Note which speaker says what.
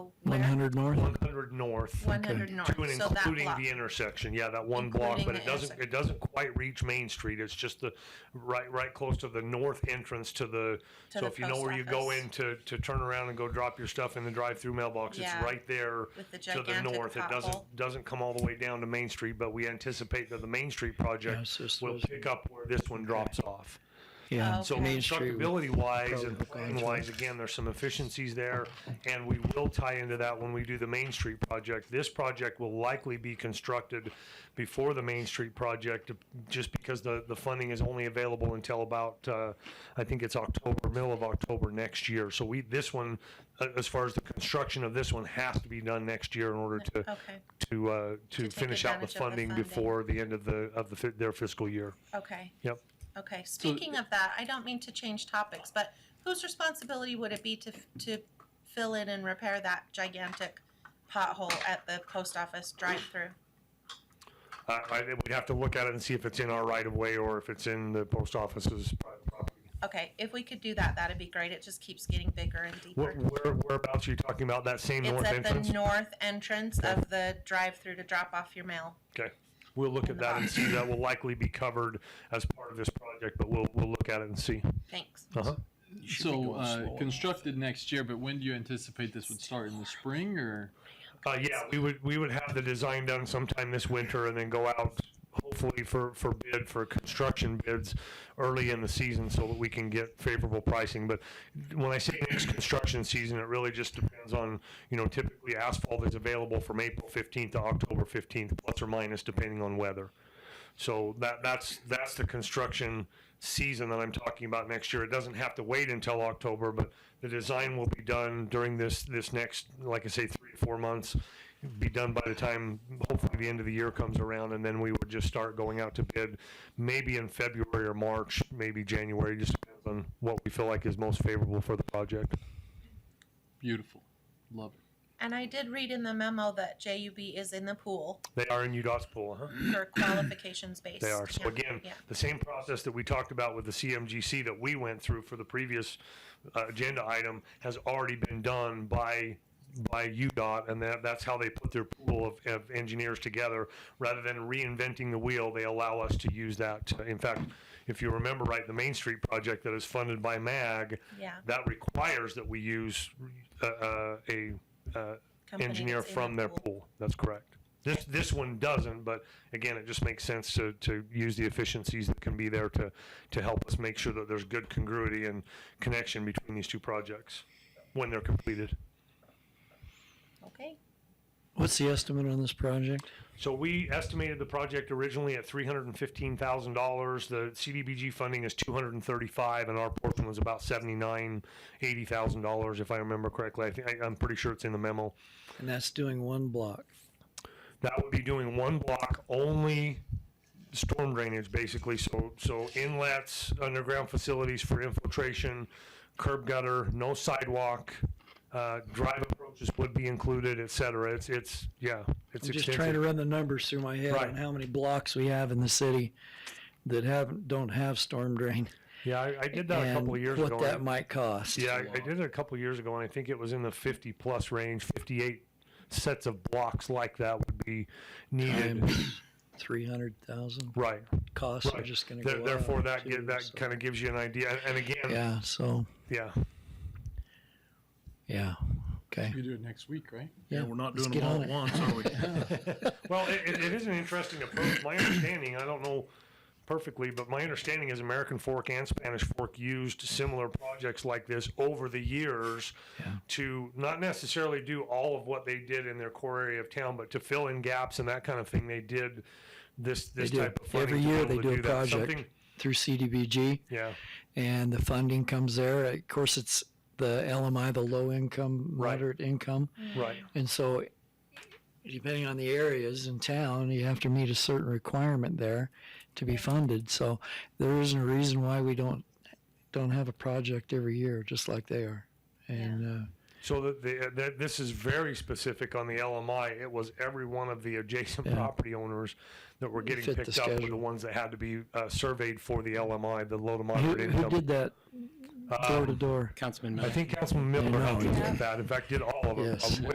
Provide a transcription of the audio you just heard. Speaker 1: One
Speaker 2: where?
Speaker 1: hundred north?
Speaker 3: 100 north.
Speaker 2: One hundred north,
Speaker 3: To and
Speaker 2: so that
Speaker 3: including
Speaker 2: block.
Speaker 3: the intersection, yeah, that one block,
Speaker 2: Including
Speaker 3: but
Speaker 2: the
Speaker 3: it doesn't,
Speaker 2: intersection.
Speaker 3: it doesn't quite reach Main Street, it's just the, right, right close to the north entrance to the,
Speaker 2: To
Speaker 3: so
Speaker 2: the
Speaker 3: if you know
Speaker 2: post
Speaker 3: where you go
Speaker 2: office.
Speaker 3: in to, to turn around and go drop your stuff in the drive-through mailbox, it's
Speaker 2: Yeah.
Speaker 3: right there
Speaker 2: With the
Speaker 3: to the
Speaker 2: gigantic
Speaker 3: north, it
Speaker 2: pothole.
Speaker 3: doesn't, doesn't come all the way down to Main Street, but we anticipate that the Main Street
Speaker 1: Yeah,
Speaker 3: project
Speaker 1: it's just
Speaker 3: will
Speaker 1: those-
Speaker 3: pick up where this one drops off.
Speaker 1: Yeah.
Speaker 2: Oh.
Speaker 3: So
Speaker 2: Okay.
Speaker 3: constructability wise
Speaker 1: probably
Speaker 3: and
Speaker 1: hook onto
Speaker 3: plan
Speaker 1: it.
Speaker 3: wise, again, there's some efficiencies there. And we will tie into that when we do the Main Street project. This project will likely be constructed before the Main Street project, just because the, the funding is only available until about, uh, I think it's October, middle of October next year. So we, this one, uh, as far as the construction of this one has to be done next year in order to,
Speaker 2: Okay,
Speaker 3: to, uh, to
Speaker 2: take
Speaker 3: finish out the
Speaker 2: advantage of the
Speaker 3: funding
Speaker 2: funding.
Speaker 3: before the end of the, of the, fi- their fiscal year.
Speaker 2: okay,
Speaker 3: Yep.
Speaker 2: okay. Speaking of that, I don't mean to change topics, but whose responsibility would it be to, f- to fill in and repair that gigantic pothole at the post office drive-through?
Speaker 3: I, I, we'd have to look at it and see if it's in our right of way or if it's in the post office's private property.
Speaker 2: Okay, if we could do that, that'd be great. It just keeps getting bigger and
Speaker 3: Where,
Speaker 2: deeper.
Speaker 3: where, whereabouts are you talking about? That same
Speaker 2: It's
Speaker 3: north
Speaker 2: at
Speaker 3: entrance?
Speaker 2: the north entrance of the drive-through to drop off your mail.
Speaker 3: Okay. We'll look at that and see. That will likely be covered as part of this project, but we'll, we'll look at it and see.
Speaker 2: Thanks.
Speaker 3: Uh-huh.
Speaker 4: So uh, constructed next year, but when do you anticipate this would start in the spring or?
Speaker 3: Uh, yeah, we would, we would have the design done sometime this winter and then go out hopefully for, for bid, for construction bids early in the season so that we can get favorable pricing. But when I say next construction season, it really just depends on, you know, typically asphalt is available from April 15th to October 15th, plus or minus depending on weather. So that, that's, that's the construction season that I'm talking about next year. It doesn't have to wait until October, but the design will be done during this, this next, like I say, three, to four months. Be done by the time, hopefully the end of the year comes around, and then we would just start going out to bid, maybe in February or March, maybe January, just depends on what we feel like is most favorable for the project.
Speaker 4: Beautiful. Love it.
Speaker 2: And I did read in the memo that JUB is in the pool
Speaker 3: They are in UDOT's pool, huh?
Speaker 2: for qualifications based.
Speaker 3: They are. So
Speaker 2: Yeah,
Speaker 3: again,
Speaker 2: yeah.
Speaker 3: the same process that we talked about with the CMGC that we went through for the previous uh, agenda item has already been done by by UDOT, and that, that's how they put their pool of, of engineers together. Rather than reinventing the wheel, they allow us to use that. In fact, if you remember right, the Main Street project that is funded by MAG,
Speaker 2: Yeah.
Speaker 3: that requires that we use uh, uh, a uh,
Speaker 2: Company
Speaker 3: engineer
Speaker 2: that's in
Speaker 3: from
Speaker 2: the
Speaker 3: their pool. That's correct. This, this one doesn't, but again, it just makes sense to, to use the efficiencies that can be there to, to help us make sure that there's good congruity and connection between these two projects when they're completed.
Speaker 2: Okay.
Speaker 1: What's the estimate on this project?
Speaker 3: So we estimated the project originally at three hundred and fifteen thousand dollars. The CDBG funding is two hundred and thirty-five, and our portion was about seventy-nine, eighty thousand dollars, if I remember correctly. I think, I- I'm pretty sure it's in the memo.
Speaker 1: And that's doing one block.
Speaker 3: That would be doing one block only storm drainage, basically. So, so inlets, underground facilities for infiltration, curb gutter, no sidewalk, uh, drive approaches would be included, et cetera. It's, it's, yeah, it's
Speaker 1: I'm just trying to
Speaker 3: extensive.
Speaker 1: run the numbers through my head on
Speaker 3: Right.
Speaker 1: how many blocks we have in the city that haven't, don't have storm drain.
Speaker 3: Yeah, I, I did that a
Speaker 1: and
Speaker 3: couple of years
Speaker 1: what
Speaker 3: ago.
Speaker 1: that
Speaker 3: and-
Speaker 1: might cost.
Speaker 3: Yeah, I, I did it a couple years ago, and I think it was in the fifty-plus range, fifty-eight sets of blocks like that would be needed.
Speaker 1: Three hundred thousand
Speaker 3: Right,
Speaker 1: costs are
Speaker 3: right.
Speaker 1: just going to
Speaker 3: There-
Speaker 1: go.
Speaker 3: Therefore,
Speaker 1: up,
Speaker 3: that, gi-
Speaker 1: too,
Speaker 3: that
Speaker 1: so-
Speaker 3: kind of gives you an idea. And- And again,
Speaker 1: Yeah. So
Speaker 3: yeah,
Speaker 1: yeah. Okay.
Speaker 4: We do it next week, right?
Speaker 1: Yeah,
Speaker 5: we're not
Speaker 1: let's
Speaker 5: doing
Speaker 1: get
Speaker 5: them all
Speaker 1: on
Speaker 5: at
Speaker 1: it.
Speaker 5: once, are we?
Speaker 3: Well, it, it, it is an interesting approach. My understanding, I don't know perfectly, but my understanding is American Fork and Spanish Fork used similar projects like this over the years to not necessarily do all of what they did in their core area of town, but to fill in gaps and that kind of thing. They did this this
Speaker 1: do.
Speaker 3: type of funding
Speaker 1: Every
Speaker 3: to be
Speaker 1: year
Speaker 3: able
Speaker 1: they
Speaker 3: to
Speaker 1: do a
Speaker 3: that.
Speaker 1: project.
Speaker 3: Something-
Speaker 1: Through CDBG,
Speaker 3: yeah,
Speaker 1: and the funding comes there. Of course, it's the LMI, the low income,
Speaker 3: Right.
Speaker 1: moderate income,
Speaker 3: right.
Speaker 1: and so depending on the areas in town, you have to meet a certain requirement there to be funded. So there isn't a reason why we don't don't have a project every year, just like they are. And uh,
Speaker 3: So that the, that this is very specific on the LMI. It was every one of the adjacent
Speaker 1: Yeah.
Speaker 3: property owners that were getting
Speaker 1: Fit the
Speaker 3: picked up were the
Speaker 1: schedule.
Speaker 3: ones that had to be uh, surveyed for the LMI, the low
Speaker 1: who,
Speaker 3: to moderate
Speaker 1: uh, who
Speaker 3: income.
Speaker 1: did that
Speaker 3: Um,
Speaker 1: door to door?
Speaker 5: Councilman
Speaker 3: I
Speaker 5: Miller.
Speaker 3: think Councilman Miller
Speaker 1: I know.
Speaker 3: helped us with that. In fact, did all of them.
Speaker 1: Yes.
Speaker 3: Uh,